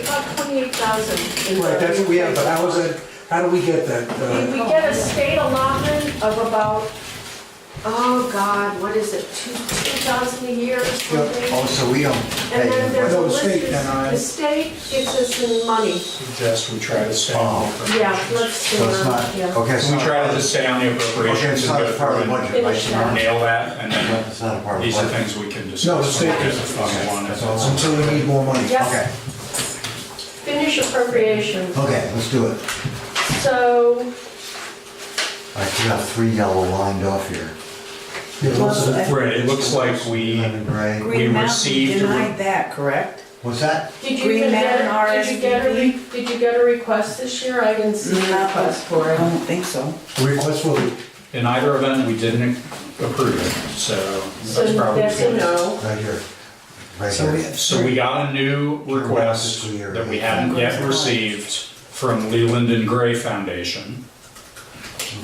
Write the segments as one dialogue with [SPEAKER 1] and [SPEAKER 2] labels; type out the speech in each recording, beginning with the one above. [SPEAKER 1] twenty-eight thousand.
[SPEAKER 2] Right, that's what we have, but how is that, how do we get that?
[SPEAKER 1] We
[SPEAKER 2] uh,
[SPEAKER 1] get a state allotment of about, oh God, what is it, two, two thousand a year or
[SPEAKER 3] Oh,
[SPEAKER 1] something?
[SPEAKER 3] so we um, don't
[SPEAKER 1] And then
[SPEAKER 3] pay.
[SPEAKER 1] there's a
[SPEAKER 2] Well, the
[SPEAKER 1] list,
[SPEAKER 2] state can, I-
[SPEAKER 1] the state gives us some money,
[SPEAKER 4] Suggest we try to stay on
[SPEAKER 3] Oh,
[SPEAKER 4] the
[SPEAKER 1] yeah,
[SPEAKER 4] appropriations.
[SPEAKER 1] let's, do
[SPEAKER 3] so it's not,
[SPEAKER 1] that, yeah.
[SPEAKER 3] okay, so.
[SPEAKER 4] We try to just stay on the
[SPEAKER 3] Okay,
[SPEAKER 4] appropriations
[SPEAKER 3] it's not
[SPEAKER 4] and go
[SPEAKER 3] a part of the
[SPEAKER 4] through and
[SPEAKER 3] budget, right, Sharon?
[SPEAKER 1] Finish
[SPEAKER 4] nail that, and then
[SPEAKER 3] It's not a part of the
[SPEAKER 4] these are
[SPEAKER 3] budget.
[SPEAKER 4] things we can discuss.
[SPEAKER 2] No, let's
[SPEAKER 4] when we
[SPEAKER 2] take
[SPEAKER 4] get
[SPEAKER 2] this.
[SPEAKER 4] to Fund one, that's all.
[SPEAKER 2] Until we need more money.
[SPEAKER 1] Yeah.
[SPEAKER 3] Okay,
[SPEAKER 1] Finish appropriation,
[SPEAKER 3] okay, let's do it.
[SPEAKER 1] so,
[SPEAKER 3] All right, you got three yellow lined off here.
[SPEAKER 2] Yeah, those are the-
[SPEAKER 4] Right, it looks like we,
[SPEAKER 3] Lemon gray.
[SPEAKER 4] We
[SPEAKER 5] Green Mountain
[SPEAKER 4] received a re-
[SPEAKER 5] denied that, correct?
[SPEAKER 3] What's that?
[SPEAKER 1] did you
[SPEAKER 5] Green
[SPEAKER 1] even get,
[SPEAKER 5] Mountain
[SPEAKER 1] did you get, a re- did you get a request this year? I didn't see a request for
[SPEAKER 5] I
[SPEAKER 1] it.
[SPEAKER 5] don't think so.
[SPEAKER 2] Request for the,
[SPEAKER 4] in either event, we didn't approve it, so
[SPEAKER 1] So
[SPEAKER 4] that's probably.
[SPEAKER 1] that's a
[SPEAKER 4] good.
[SPEAKER 1] no.
[SPEAKER 3] Right here. Right
[SPEAKER 2] so we
[SPEAKER 3] here.
[SPEAKER 2] have.
[SPEAKER 4] So we got a new request that we hadn't yet received from Leland and Gray Foundation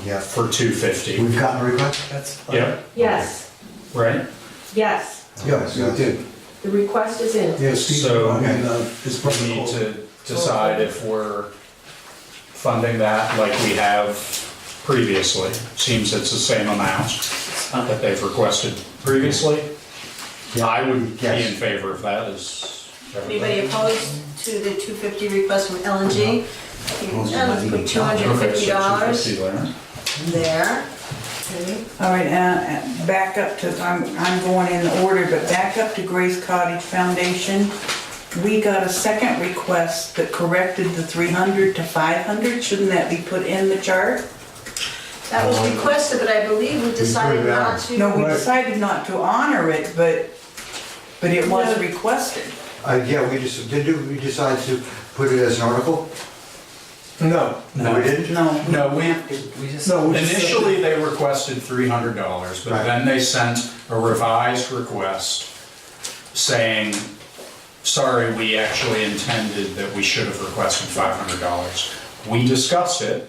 [SPEAKER 3] Yeah.
[SPEAKER 4] for two fifty.
[SPEAKER 3] We've gotten a request?
[SPEAKER 2] That's.
[SPEAKER 4] Yep,
[SPEAKER 1] Yes,
[SPEAKER 4] right?
[SPEAKER 1] yes,
[SPEAKER 2] Yes, we did.
[SPEAKER 1] the request is in.
[SPEAKER 2] Yeah, Steve,
[SPEAKER 4] So-
[SPEAKER 2] I mean, uh, it's
[SPEAKER 4] We
[SPEAKER 2] probably
[SPEAKER 4] need
[SPEAKER 2] called.
[SPEAKER 4] to decide if we're funding that like we have previously. Seems it's the same amount that they've requested previously. I would be
[SPEAKER 3] Yes.
[SPEAKER 4] in favor of that as.
[SPEAKER 6] Anybody opposed to the 250 request from LNG? Yeah, let's put
[SPEAKER 4] Okay, so
[SPEAKER 6] $250
[SPEAKER 4] $250 there.
[SPEAKER 6] there. Okay.
[SPEAKER 5] All right, uh, uh, back up to, I'm, I'm going in the order, but back up to Grace Cottage Foundation. We got a second request that corrected the 300 to 500. Shouldn't that be put in the chart?
[SPEAKER 6] That was requested, but I believe we decided
[SPEAKER 3] it out.
[SPEAKER 6] not to.
[SPEAKER 5] No, we
[SPEAKER 2] Right.
[SPEAKER 5] decided not to honor it, but, but it was requested.
[SPEAKER 3] Uh, yeah, we just, did you- we decide to put it as an article?
[SPEAKER 2] No,
[SPEAKER 3] No. We didn't?
[SPEAKER 5] No.
[SPEAKER 4] No, we-
[SPEAKER 5] have to.
[SPEAKER 2] no. we just-
[SPEAKER 4] Initially, they requested three hundred dollars, but
[SPEAKER 3] Right.
[SPEAKER 4] then they sent a revised request saying, sorry, we actually intended that we should have requested five hundred dollars. We discussed it,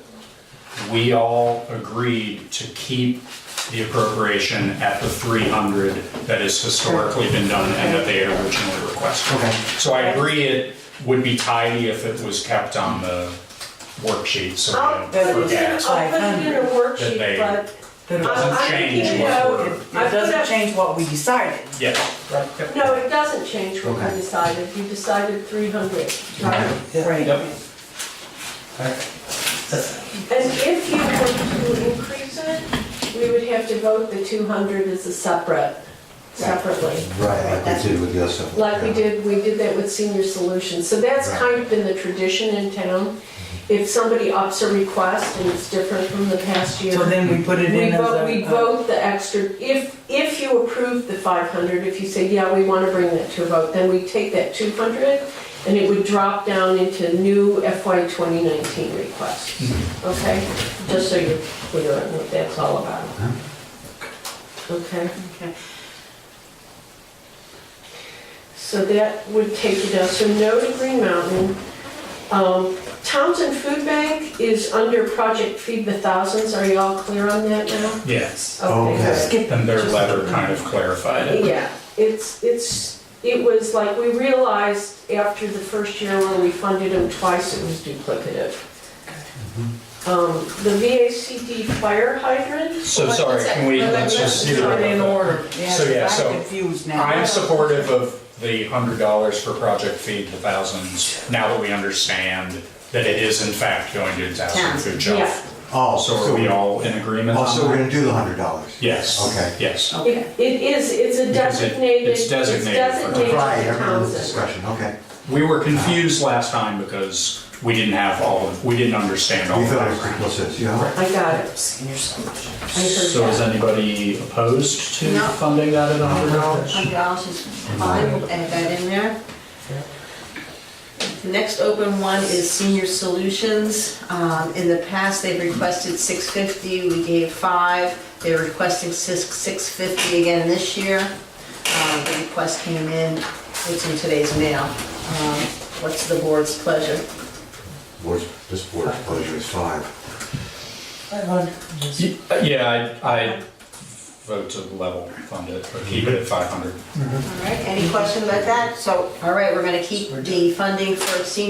[SPEAKER 4] we all agreed to keep the appropriation at the three hundred that has historically been done and that they had originally requested.
[SPEAKER 3] Okay.
[SPEAKER 4] So I agree it would be tidy if it was kept on the worksheet, so. we
[SPEAKER 1] I'll
[SPEAKER 4] don't
[SPEAKER 1] put it in,
[SPEAKER 4] forget.
[SPEAKER 1] I'll put it in a
[SPEAKER 4] That they-
[SPEAKER 1] worksheet, but
[SPEAKER 5] That it
[SPEAKER 1] I-
[SPEAKER 5] wasn't-
[SPEAKER 1] I
[SPEAKER 4] Doesn't
[SPEAKER 1] think
[SPEAKER 4] change
[SPEAKER 1] you
[SPEAKER 4] what's
[SPEAKER 1] know, I
[SPEAKER 4] ordered.
[SPEAKER 5] It
[SPEAKER 1] put
[SPEAKER 5] doesn't
[SPEAKER 1] up-
[SPEAKER 5] change what we decided.
[SPEAKER 4] Yeah.
[SPEAKER 1] No, it doesn't change what
[SPEAKER 3] Okay.
[SPEAKER 1] we decided, you decided three hundred, right?
[SPEAKER 3] Okay.
[SPEAKER 5] Right.
[SPEAKER 4] Yep.
[SPEAKER 1] And if you were to increase it, we would have to vote the two hundred as a separate, separately.
[SPEAKER 3] Right, like we did with the other stuff.
[SPEAKER 1] Like we
[SPEAKER 3] Yeah.
[SPEAKER 1] did, we did that with senior solutions, so that's
[SPEAKER 3] Right.
[SPEAKER 1] kind of been the tradition in town. If somebody ups a request and it's different from the past year.
[SPEAKER 5] So then we put it
[SPEAKER 1] We
[SPEAKER 5] in as
[SPEAKER 1] vote,
[SPEAKER 5] a.
[SPEAKER 1] we vote the extra, if, if you approve the 500, if you say, yeah, we want to bring that to a vote, then we take that 200 and it would drop down into new FY 2019 requests. Okay? Just so you're clear on what that's all about. Okay?
[SPEAKER 6] Okay.
[SPEAKER 1] So that would take you down, so no to Green Mountain. Um, Townsend Food Bank is under Project Feed the Thousands, are you all clear on that now?
[SPEAKER 4] Yes.
[SPEAKER 3] Okay.
[SPEAKER 1] good.
[SPEAKER 4] And their letter kind of clarified it.
[SPEAKER 1] Yeah, it's, it's, it was like, we realized after the first year where we funded them twice, it was duplicative.
[SPEAKER 3] Mm-hmm.
[SPEAKER 1] Um, The VACD fire hydrant,
[SPEAKER 4] So sorry, can we, let's just see.
[SPEAKER 5] Put it in
[SPEAKER 4] the-
[SPEAKER 5] order.
[SPEAKER 4] So, yeah,
[SPEAKER 5] Yes,
[SPEAKER 4] so
[SPEAKER 5] I'm confused now.
[SPEAKER 4] I'm supportive of the hundred dollars for Project Feed the Thousands, now that we understand that it is in fact going to Towson Food
[SPEAKER 1] yeah.
[SPEAKER 4] Shelf.
[SPEAKER 3] Oh,
[SPEAKER 4] So are we all in agreement
[SPEAKER 3] Oh, so we're
[SPEAKER 4] on that?
[SPEAKER 3] gonna do the hundred dollars?
[SPEAKER 4] Yes.
[SPEAKER 3] Okay.
[SPEAKER 4] Yes.
[SPEAKER 1] It it is, it's a
[SPEAKER 4] Because it-
[SPEAKER 1] designated,
[SPEAKER 4] it's
[SPEAKER 1] it's
[SPEAKER 4] designated for-
[SPEAKER 1] designated
[SPEAKER 3] Right, I remember the
[SPEAKER 1] Townsend.
[SPEAKER 3] discussion, okay.
[SPEAKER 4] We were confused last time because we didn't have all, of we didn't understand all
[SPEAKER 3] We
[SPEAKER 4] of
[SPEAKER 3] thought it was
[SPEAKER 4] that.
[SPEAKER 3] complicit, yeah.
[SPEAKER 1] I got it. I
[SPEAKER 4] So
[SPEAKER 1] heard
[SPEAKER 4] is
[SPEAKER 1] that.
[SPEAKER 4] anybody opposed to
[SPEAKER 6] No.
[SPEAKER 4] funding that at a hundred dollars?
[SPEAKER 6] $100 is fine, we'll add that in there. The next open one is Senior Solutions. Um, In the past, they've requested 650, we gave five. They're requesting six- 650 again this year. Um, The request came in, it's in today's mail. Um, What's the board's pleasure?
[SPEAKER 3] Board's, this board's pleasure is five.
[SPEAKER 4] uh, Yeah, I, I vote to level fund it, or keep it at five hundred.
[SPEAKER 6] All right, any questions about that? So, all right, we're gonna keep the funding for senior